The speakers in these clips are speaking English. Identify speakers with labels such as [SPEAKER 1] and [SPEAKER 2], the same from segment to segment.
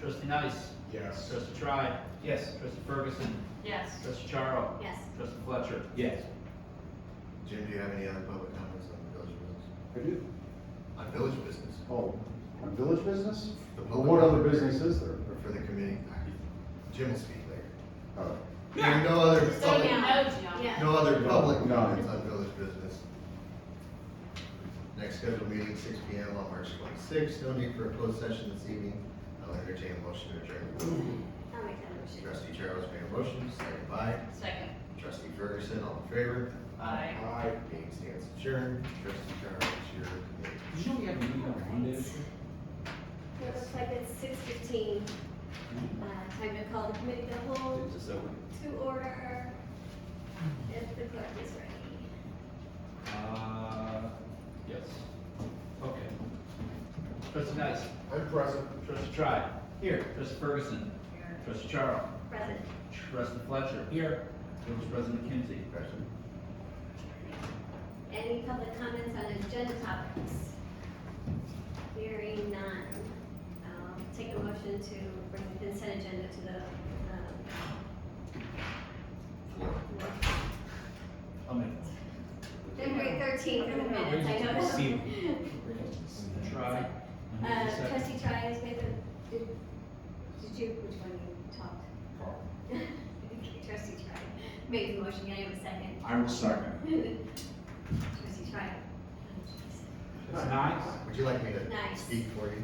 [SPEAKER 1] Trustee Nice.
[SPEAKER 2] Yes.
[SPEAKER 1] Trustee Tribe.
[SPEAKER 3] Yes.
[SPEAKER 1] Trustee Ferguson.
[SPEAKER 4] Yes.
[SPEAKER 1] Trustee Charo.
[SPEAKER 4] Yes.
[SPEAKER 1] Trustee Fletcher.
[SPEAKER 3] Yes.
[SPEAKER 2] Jim, do you have any other public comments on village business?
[SPEAKER 5] I do.
[SPEAKER 2] On village business?
[SPEAKER 5] Oh, on village business?
[SPEAKER 2] The
[SPEAKER 5] Well,
[SPEAKER 2] public
[SPEAKER 5] What other
[SPEAKER 2] comment
[SPEAKER 5] business is there?
[SPEAKER 2] Or for the committee? Jim will speak later.
[SPEAKER 5] Oh,
[SPEAKER 2] There are no other public,
[SPEAKER 4] No, John.
[SPEAKER 6] Yeah.
[SPEAKER 2] no other public
[SPEAKER 5] No.
[SPEAKER 2] comments on village business. Next scheduled meeting, six P M on March twenty-sixth. No need for a closed session this evening. I'll entertain a motion to adjourn.
[SPEAKER 6] I'll make that motion.
[SPEAKER 2] Trustee Charos made a motion, second by
[SPEAKER 4] Second.
[SPEAKER 2] trustee Ferguson, all in favor?
[SPEAKER 4] Aye.
[SPEAKER 2] Aye. Meeting stands adjourned. Trustee Charos, your committee.
[SPEAKER 3] Did you know we have a meeting on Monday? this week?
[SPEAKER 6] It looks like it's six fifteen. Uh, time to call the committee to hold
[SPEAKER 3] It's just over.
[SPEAKER 6] to order if the clerk is ready.
[SPEAKER 1] Uh, yes. Okay. Trustee Nice.
[SPEAKER 2] I'm present.
[SPEAKER 1] Trustee Tribe. Here. Trustee Ferguson. Here. Trustee Charo.
[SPEAKER 6] Present.
[SPEAKER 1] Trustee Fletcher. Here. Village President McKenzie.
[SPEAKER 2] Present.
[SPEAKER 6] Any public comments on agenda topics? Hearing none. I'll take a motion to bring the consent agenda to the, um,
[SPEAKER 2] Four.
[SPEAKER 6] floor.
[SPEAKER 1] I'll make
[SPEAKER 6] February thirteenth in the minutes, I
[SPEAKER 3] Receive.
[SPEAKER 6] know.
[SPEAKER 1] it. Tribe.
[SPEAKER 6] Uh, trustee Trias made the, did, did you, which one you talked? Okay, Trustee Trias made the motion, can I have a second?
[SPEAKER 3] I will second.
[SPEAKER 6] Trustee Trias.
[SPEAKER 1] It's nice.
[SPEAKER 2] Would you like me to
[SPEAKER 6] Nice.
[SPEAKER 2] speak for you?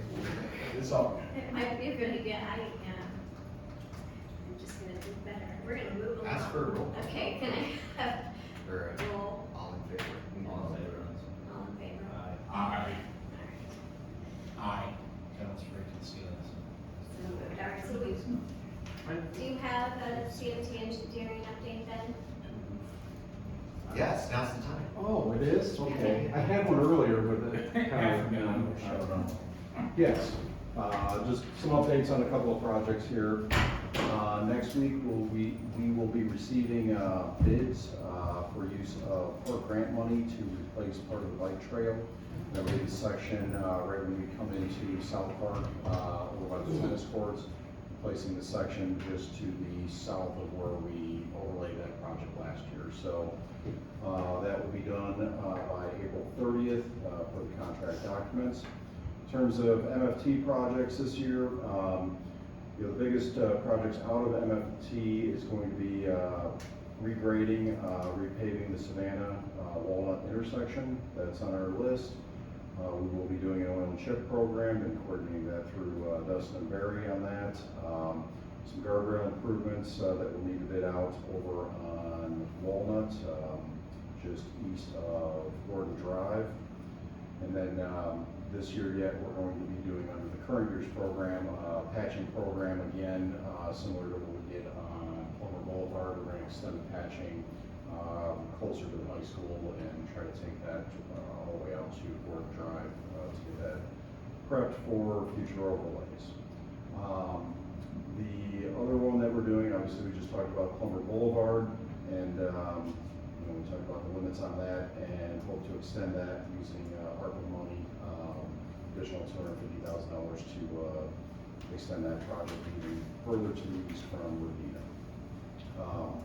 [SPEAKER 3] It's all.
[SPEAKER 6] It might be really good, I, um, I'm just gonna do better, we're gonna move along.
[SPEAKER 2] Ask for a roll.
[SPEAKER 6] Okay, can I have
[SPEAKER 2] Or
[SPEAKER 6] a roll,
[SPEAKER 2] uh, all in favor?
[SPEAKER 1] All in favor.
[SPEAKER 6] all in favor?
[SPEAKER 3] Aye.
[SPEAKER 1] Aye.
[SPEAKER 3] Aye.
[SPEAKER 6] So moved, all right, so we, do you have a CMT engineering update then?
[SPEAKER 2] Yes, now's the time.
[SPEAKER 5] oh, it is? Okay. I had one earlier, but it kind of, I don't know. Yes, uh, just some updates on a couple of projects here. Uh, next week, we'll, we, we will be receiving, uh, bids, uh, for use of port grant money to replace part of the bike trail. That would be the section, uh, right when we come into South Park, uh, over by the tennis courts, placing the section just to the south of where we overlaid that project last year. So, uh, that will be done, uh, by April thirtieth, uh, for the contract documents. In terms of MFT projects this year, um, you know, the biggest, uh, projects out of MFT is going to be, uh, regrading, uh, repaving the Savannah uh, Walnut intersection, that's on our list. Uh, we will be doing an oil and chip program and coordinating that through, uh, Dustin and Barry on that. Um, some guardrail improvements, uh, that will need to bid out over on Walnut, um, just east of Gordon Drive. And then, um, this year yet, we're going to be doing under the current year's program, uh, patching program again, uh, similar to what we did on Plummer Boulevard. We're gonna extend the patching, um, closer to the high school and try to take that, uh, all the way out to Gordon Drive, uh, to get that prepped for future overlays. Um, the other one that we're doing, obviously, we just talked about Plummer Boulevard, and, um, you know, we talked about the limits on that, and hope to extend that using, uh, ARPA money, um, additional two hundred fifty thousand dollars to, uh, extend that project even further to the east from Revita. Um,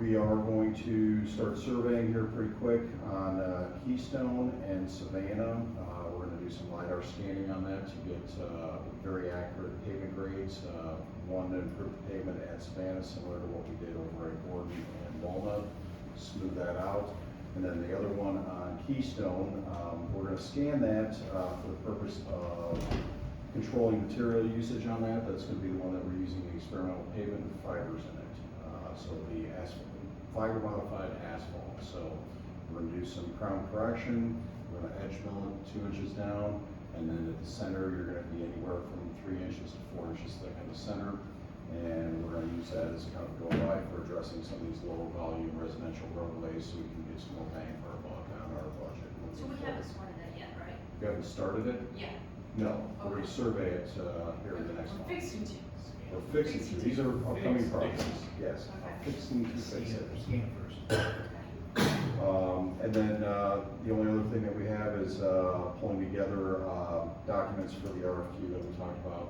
[SPEAKER 5] we are going to start surveying here pretty quick on uh, Keystone and Savannah. Uh, We're gonna do some LiDAR scanning on that to get uh, very accurate pavement grades. Uh, One to improve the pavement at Savannah, similar to what we did over at Gordon and Walnut, smooth that out. And then the other one on Keystone, um, we're gonna scan that uh, for the purpose of controlling material usage on that, that's gonna be the one that we're using the experimental pavement with fibers in it. Uh, so the asphalt, fiber modified asphalt, so we're gonna do some crown correction, we're gonna edge mill it two inches down, and then at the center, you're gonna be anywhere from three inches to four inches thick in the center. And we're gonna use that as kind of go by for addressing some of these lower volume residential roadways, so we can get some more bang for our buck on our budget.
[SPEAKER 4] So we haven't sworn to that yet, right?
[SPEAKER 5] You haven't started it?
[SPEAKER 4] Yeah.
[SPEAKER 5] No, we're gonna survey it, uh, here in the next
[SPEAKER 4] We're
[SPEAKER 5] month.
[SPEAKER 4] fixing to.
[SPEAKER 5] We're fixing,
[SPEAKER 4] fixing
[SPEAKER 5] these are upcoming
[SPEAKER 3] Fix,
[SPEAKER 5] projects, yes, I'm fixing to fix it.
[SPEAKER 2] Scan first.
[SPEAKER 5] Um, and then, uh, the only other thing that we have is, uh, pulling together, uh, documents for the RFQ that we talked about,